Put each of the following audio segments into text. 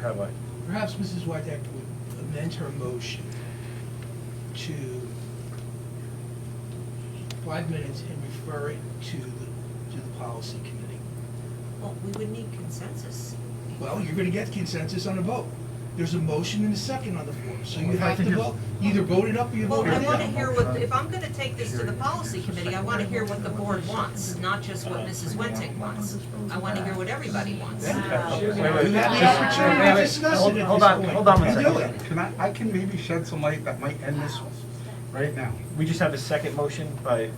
Have I? Perhaps Mrs. Wydeck would amend her motion to five minutes and refer it to the, to the policy committee. Well, we would need consensus. Well, you're gonna get consensus on a vote. There's a motion and a second on the floor, so you have to vote, You either vote it up or you Well, vote I it wanna down. hear what, if I'm gonna take this to the policy committee, I wanna hear what the board wants, not just what Mrs. Wentic wants. I wanna hear what everybody wants. Okay. Wait, wait, You have just- the opportunity wait, to wait, discuss hold- it at Hold this on, point. hold on one You do second. it. Can I, I can maybe shed some light that might end this one, right now. We just have a second motion by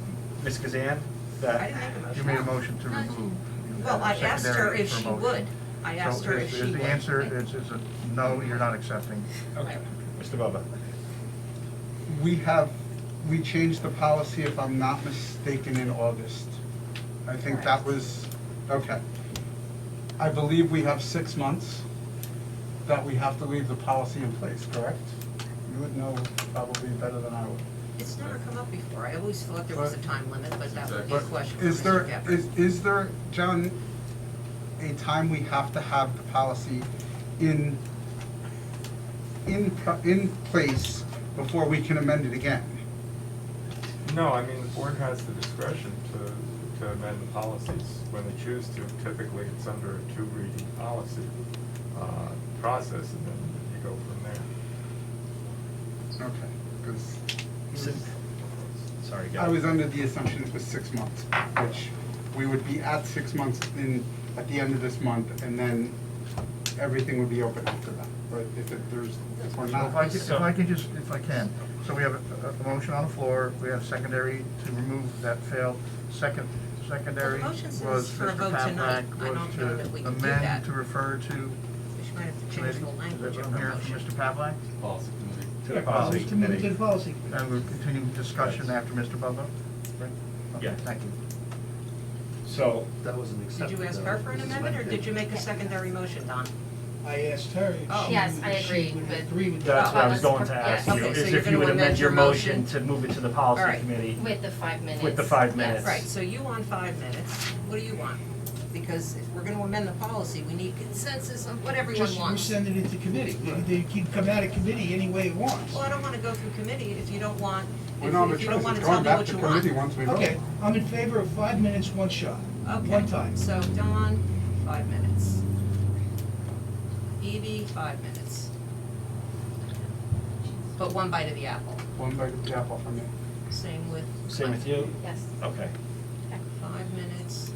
Ms. Kazan I that, didn't make a motion. You made a motion to remove. You Well, I had a asked her secondary if she for motion. would. I So asked her is- if she would. Is the answer, is, is a no, you're not accepting? okay, Mr. Bubba. We have, we changed the policy, if I'm not mistaken, in August. I think that Correct. was, okay. I believe we have six months that we have to leave the policy in place, correct? You would know probably better than I would. It's never come up before. I always thought there was a time limit, but that would be a But question for Is Mr. there, Gepper. is, is there, John, a time we have to have the policy in, in, pro- in place before we can amend it again? No, I mean, the board has the discretion to, to amend the policies when they choose to. Typically, it's under a two-reading policy uh, process, and then you go from there. Okay, because Hmm. Sorry, I guys. was under the assumption it was six months, which we would be at six months in, at the end of this month, and then everything would be open after that, but if it, there's, if we're Well, If I not, can, if I can just, if I can, so we have a, a motion on the floor, we have secondary to remove that failed, second, secondary The was motion says for a Mr. vote tonight. Papak, I don't was know that we to can do that. amend, to refer to She might have to change committee. the language Is that of what I'm her hearing from motion. Mr. Papak? Policy committee. To the Uh, policy To move to the committee. policy committee. And we'll continue discussion Yes. after Mr. Bubba? Right? Okay, Yeah. Thank you. So, That wasn't Did accepted. you ask her for an though. amendment, or did you make a secondary motion, Don? I asked her Oh. if she Yes, I would, she agree would with- agree with that's that. Well, what I was let's- going to ask yeah, you, okay, so is you're if gonna you would amend your motion motion. to move it to the All policy right. committee. With the five minutes. With the five yes. minutes. Right, so you want five minutes. What do you want? Because if we're gonna amend the policy, we need consensus on what everyone Just wants. resend it into committee. They they can come out of committee any way it wants. Well, I don't wanna go through committee if you don't want, we if don't have a you- if you choice, don't wanna it's tell going me back what to you want. committee once we vote. Okay, I'm in favor of five minutes, one shot, one time. Okay, so Don, five minutes. Evie, five minutes. But one bite of the apple. One bite of the apple for me. Same with. Same with you? Yes. Okay. Five minutes.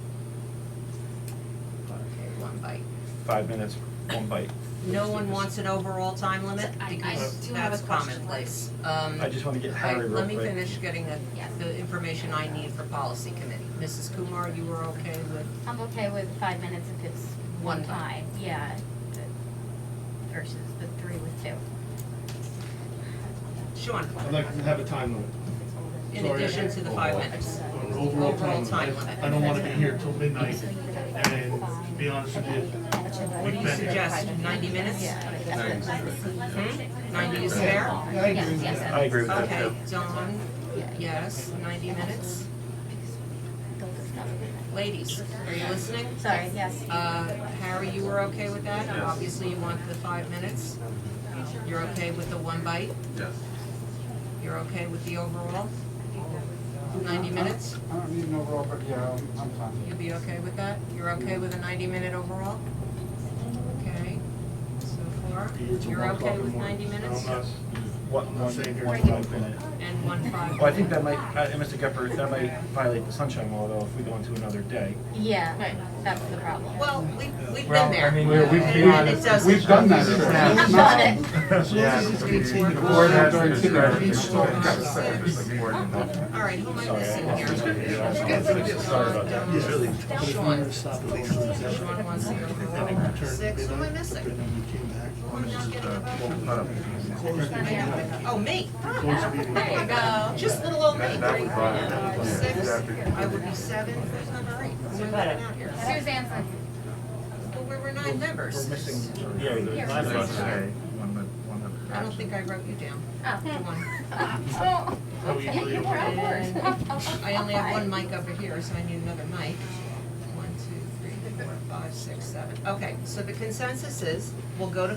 Okay, one bite. Five minutes, one bite. No one wants an overall time limit I- I because do have a that's question. commonplace. Um, I just want to get I- Harry real let quick. me finish getting the, Yes. the information I need for policy committee. Mrs. Kumar, you were okay with, I'm okay with five minutes if it's One one time. time, yeah, the- versus the three with two. Sean, I'd like to have a time limit. in Sorry, I- addition to the five minutes. An overall Overall time time limit. limit. I don't want to be here till midnight, and to be honest with you, What do you suggest, ninety minutes? Hmm? Ninety is fair? Yeah, I agree with Yes, that. I agree with that Okay, too. Dawn, yes, ninety minutes. Ladies, are you listening? Sorry, yes. Uh, Harry, you were okay with that? Obviously, you want the five minutes. You're okay with the one bite? Yes. You're okay with the overall? Ninety minutes? I don't need an overall, but yeah, I'm, I'm fine. You'll be okay with that? You're okay with a ninety-minute overall? Okay, so far, It's a you're one o'clock okay in the with morning. ninety minutes? I'm not- One, I'm not one, saying here one it's five not. minute. And one five? Well, I think that might, uh, Mr. Gepper, that might violate the sunshine law though, if we go into another day. Yeah, that's the problem. Well, we, we've Well, been there. I mean, We're- we've- And it doesn't. We've done that. I've before. done it. As long as it's continued. The board has the During discretion. kindergarten. The board and not- All right, who am I Sorry, I missing lost here? Sorry about that. It's really- Sean, Stop it. They don't accept it. Sean wants the They don't overall. return- Six, who they am I don't- missing? then you came back. We're not getting a vote. Close the meeting. Oh, me. Close the meeting. There you go. Just little old me. That- uh, that would violate- Number yeah, Six, exactly. I would be seven, who's number eight? Who's out here? Suzanne's like, Well, we were nine members. We're missing, yeah, the last Let's one. say one that- one that- I don't think I wrote you down. Come oh. on. Oh. How we usually You're on And board. I only have one mic over here, so I need another mic. One, two, three, four, five, six, seven. Okay, so the consensus is, we'll go to